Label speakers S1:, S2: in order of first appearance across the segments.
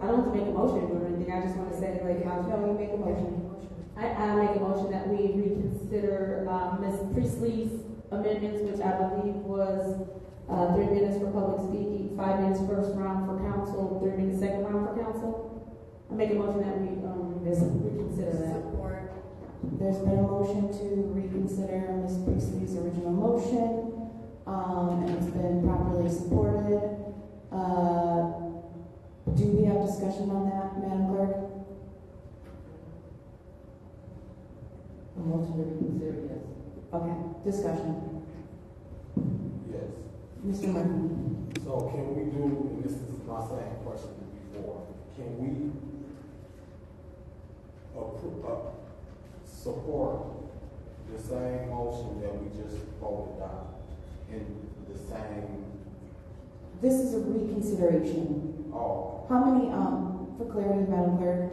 S1: I don't have to make a motion or anything, I just wanna say, like, how,
S2: No, you make a motion.
S1: I, I make a motion that we reconsider, um, Ms. Priestley's amendments, which I believe was, uh, three minutes for public speaking, five minutes first round for council, three minutes second round for council. I make a motion that we, um, reconsider that.
S3: Support.
S2: There's been a motion to reconsider Ms. Priestley's original motion, um, and it's been properly supported. Uh, do we have discussion on that, Madam Clerk?
S4: A motion to reconsider, yes.
S2: Okay, discussion.
S5: Yes.
S2: Mr. Murphy?
S5: So can we do, and this is my same question before, can we appro- uh, support the same motion that we just voted on in the same,
S2: This is a reconsideration.
S5: oh,
S2: How many, um, for clarity, Madam Clerk,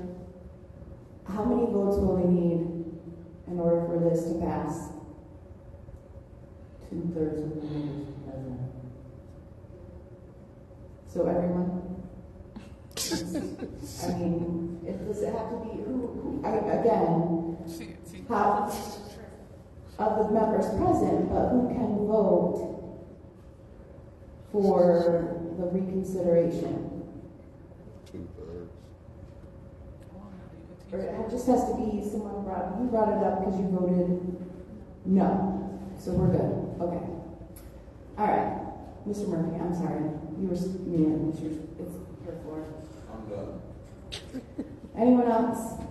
S2: how many votes will we need in order for this to pass?
S4: Two-thirds of the members present.
S2: So everyone? I mean, it, does it have to be, who, who, I, again, how, of the members present, but who can vote for the reconsideration? Or it just has to be someone brought, you brought it up because you voted no, so we're good, okay. All right, Mr. Murphy, I'm sorry, you were, s- you, it's your, it's your floor.
S5: I'm done.
S2: Anyone else?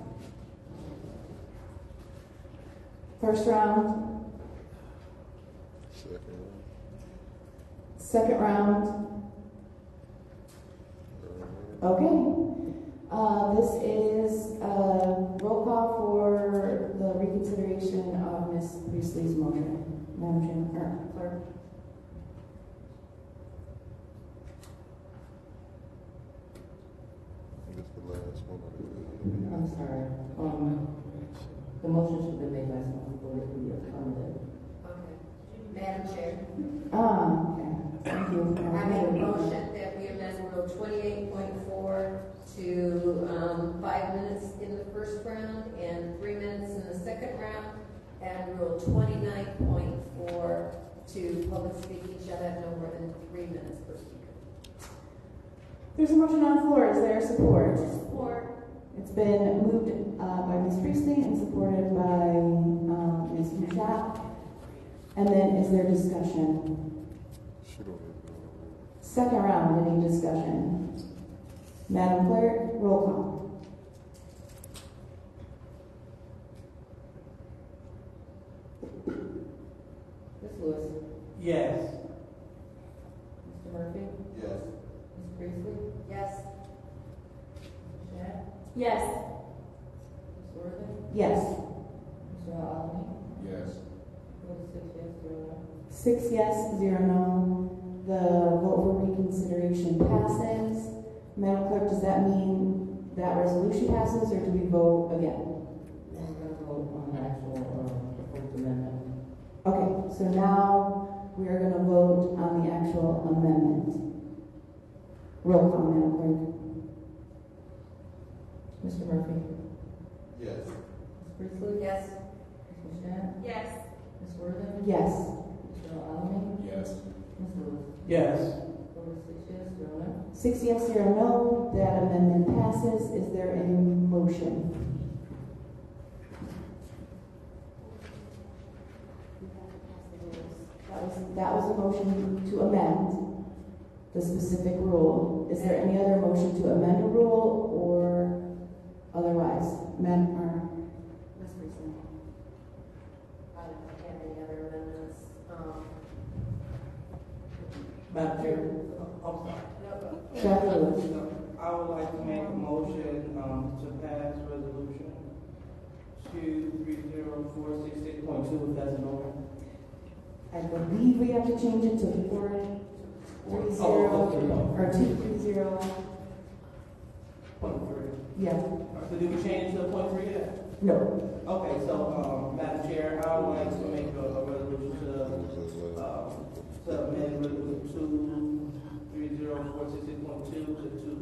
S2: First round,
S6: Second one.
S2: second round,
S6: Uh,
S2: okay. Uh, this is, uh, roll call for the reconsideration of Ms. Priestley's motion. Madam Jim, or clerk?
S6: I guess the last one.
S4: I'm sorry, um, the motion should have been made last month, we voted for your comment.
S3: Okay. Madam Chair,
S2: Ah, okay, thank you.
S3: I make a motion that we amend Rule twenty-eight point four to, um, five minutes in the first round and three minutes in the second round, and Rule twenty-nine point four to public speaking shall have no more than three minutes per speaker.
S2: There's a motion on the floor, is there support?
S3: Support.
S2: It's been moved uh, by Ms. Priestley and supported by um, Ms. Mushat. And then is there discussion?
S6: She don't even know.
S2: Second round, any discussion? Madam Clerk, roll call.
S4: Ms. Lewis,
S7: Yes.
S4: Mr. Murphy,
S5: Yes.
S4: Ms. Priestley,
S3: Yes.
S4: Ms. Shaq,
S1: Yes.
S4: Ms. Worthing,
S2: Yes.
S4: Mr. Allen,
S5: Yes.
S4: forty-six, yes, zero, no.
S2: Six yes, zero no. The vote for reconsideration passes. Madam Clerk, does that mean that resolution passes or do we vote again?
S4: Now we're gonna vote on the actual, um, proposed amendment.
S2: Okay, so now we are going to vote on the actual amendment. Roll call, Madam Clerk.
S4: Mr. Murphy, Ms.
S5: Yes.
S4: Priestley,
S3: Yes.
S4: Ms. Shaq,
S1: Yes.
S4: Ms. Worthing,
S2: Yes.
S4: Mr. Allen,
S5: Yes.
S4: Ms. Lewis,
S7: Yes.
S4: forty-six, yes, zero, no.
S2: Six yes, zero no. That amendment passes. Is there a motion? That was, that was a motion to amend the specific rule. Is there any other motion to amend a rule or otherwise? Madam, or
S3: Ms. Priestley? I don't have any other amendments. Um,
S7: Madam Chair, I'm sorry.
S3: no,
S2: Jeff Lewis?
S7: I would like to make a motion, um, to pass resolution two three zero four six six point two, if that's an order.
S2: I believe we have to change it to four, three zero,
S7: Oh, okay.
S2: or two, three zero,
S7: Point three.
S2: yeah,
S7: So did we change the point three yet?
S2: no.
S7: Okay, so, um, Madam Chair, I would like to make a, a resolution
S6: What was
S5: Uh,
S6: that
S7: to,
S6: last?
S7: um, to amend resolution two three zero four six six point two to two